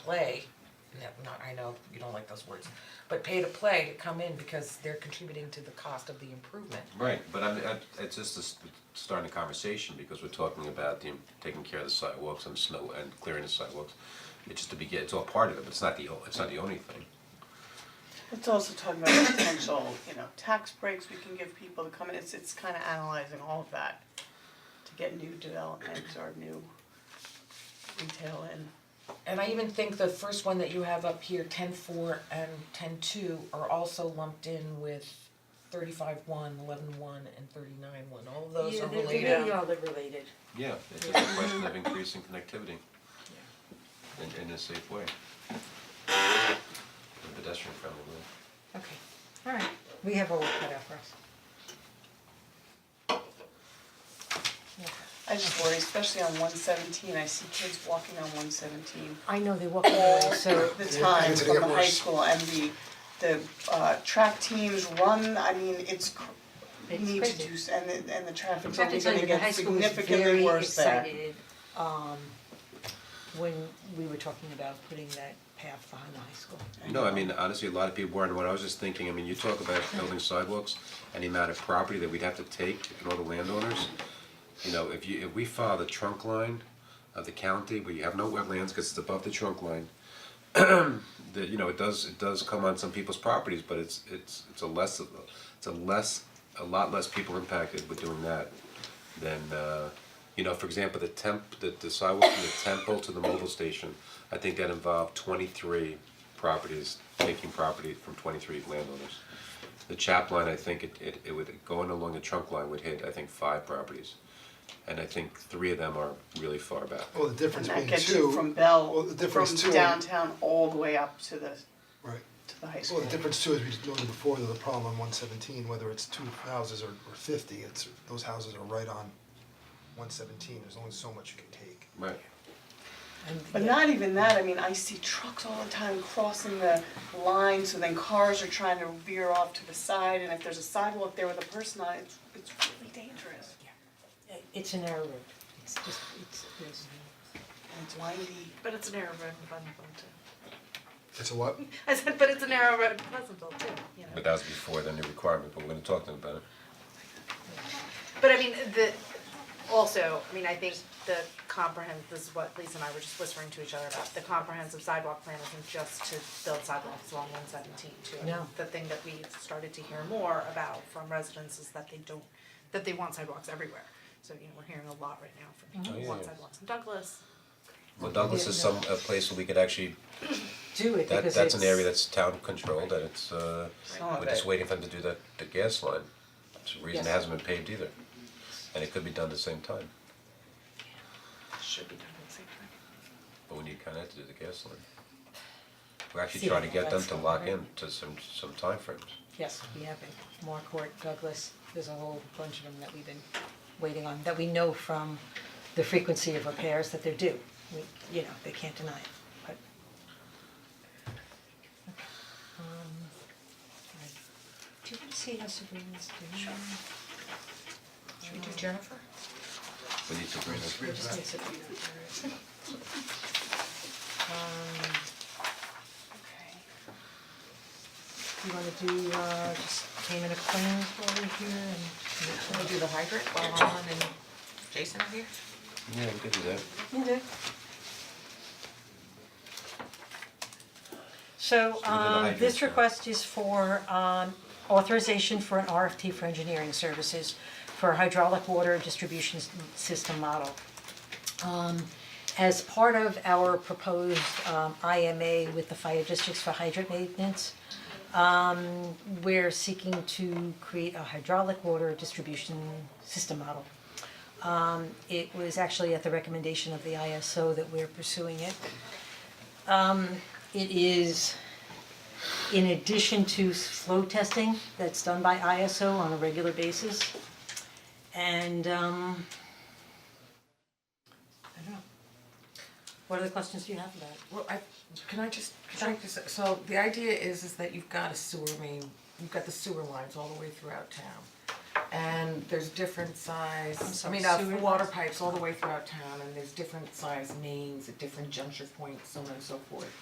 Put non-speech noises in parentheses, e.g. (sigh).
play, no, not, I know you don't like those words, but pay to play to come in because they're contributing to the cost of the improvement. Right, but I'm, I- it's just this, starting a conversation, because we're talking about the, taking care of the sidewalks and snow, and clearing the sidewalks. It's just to begin, it's all part of it, but it's not the, o- it's not the only thing. It's also talking about potential, you know, tax breaks we can give people to come in, it's it's kinda analyzing all of that to get new development or new retail in. And I even think the first one that you have up here, ten four and ten two, are also lumped in with thirty five one, eleven one, and thirty nine one, all of those are related. Yeah. really all they're related. Yeah, it's just a question of increasing connectivity. In, in a safe way. And pedestrian friendly way. Okay, alright, we have our work cut out for us. I just worry, especially on one seventeen, I see kids walking on one seventeen I know they walk away, (laughs) so, the time it's from gonna the get high worse. school and the the uh track teams run, I mean, it's cr- It's need to crazy. do, s- and the and the traffic's I have to only tell gonna you, the get high school was very significantly worse there. excited, um, when we were talking about putting that path behind the high school. No, I mean, honestly, a lot of people weren't, what I was just thinking, I mean, you talk about building sidewalks and the amount of property that we'd have to take and all the landowners. You know, if you, if we follow the trunk line of the county, where you have no wetlands, cause it's above the trunk line. (clears throat) That, you know, it does, it does come on some people's properties, but it's, it's, it's a less, of a- it's a less, a lot less people impacted with doing that. Than, uh, you know, for example, the temp, the the sidewalk from the temple to the mobile station, I think that involved twenty-three properties, taking property from twenty-three landowners. The chap line, I think it, it, it would, going along the trunk line would hit, I think, five properties. And I think three of them are really far back. Well, the difference And that being gets two, you from well, Bell, the from difference too, downtown all the way up to the, right, to the high well, school. the difference too, as we just noted before, though, the problem on one seventeen, whether it's two houses or or fifty, it's, those houses are right on one seventeen, there's only so much you can take. Right. And But yeah, not even that, I mean, I see trucks all the time crossing the line, so then cars are trying to veer off to the side, and if there's a sidewalk there with a person on it, it's, it's really dangerous. It's a narrow road, it's just, it's, there's, And it's windy. But it's a narrow road in Pleasantville too. (laughs) It's a what? I said, but it's a narrow road in Pleasantville too, you know. But that was before the new requirement, but we're gonna talk to them about it. But I mean, the, also, I mean, I think the comprehend, this is what Lisa and I were just whispering to each other about, the comprehensive sidewalk plan isn't just to build sidewalks along one seventeen too. No. The thing that we started to hear more about from residents is that they don't, that they want sidewalks everywhere. So, you know, we're hearing a lot right now from people who Oh, want yeah. sidewalks in Douglas, Well, Douglas is some, a place where we could actually, do it that, because that's an area that's it's- town controlled and it's, uh, Some of we're just it. waiting for them to do that, the gas line. It's a reason it Yes. hasn't been paved either. And it could be done at the same time, should be done at the same time. but we need Con Ed to do the gas line. We're actually See, trying to get them that's to lock right. in to some, some timeframes. Yes, we have been, Marquardt, Douglas, there's a whole bunch of them that we've been waiting on, that we know from the frequency of repairs that they're due, we, you know, they can't deny it, but. Okay, um, alright. Do you wanna see how Sabrina's doing? Sure. Should we do Jennifer? We need to bring this. We just need Sabrina for it. Um, you wanna do, uh, just payment of claims while we're here and. Can we do the hydrant while Alan and Jason are here? Yeah, we could do that. So we did the um, hydrant this now. request is for um, authorization for an RFT for engineering services for hydraulic water distribution s- system model. Um, as part of our proposed um, IMA with the fire districts for hydrant maintenance, um, we're seeking to create a hydraulic water distribution system model. Um, it was actually at the recommendation of the ISO that we're pursuing it Um, it is in addition to flow testing that's done by ISO on a regular basis. And um I don't know. What other questions do you have about it? Well, I, can I just, can I just, so the idea is, is that you've got a sewer main, you've got the sewer lines all the way throughout town. and there's different size, I sorry, mean, uh, sewer water pipes all the way throughout town, and there's different size mains at different juncture points, so on and so forth.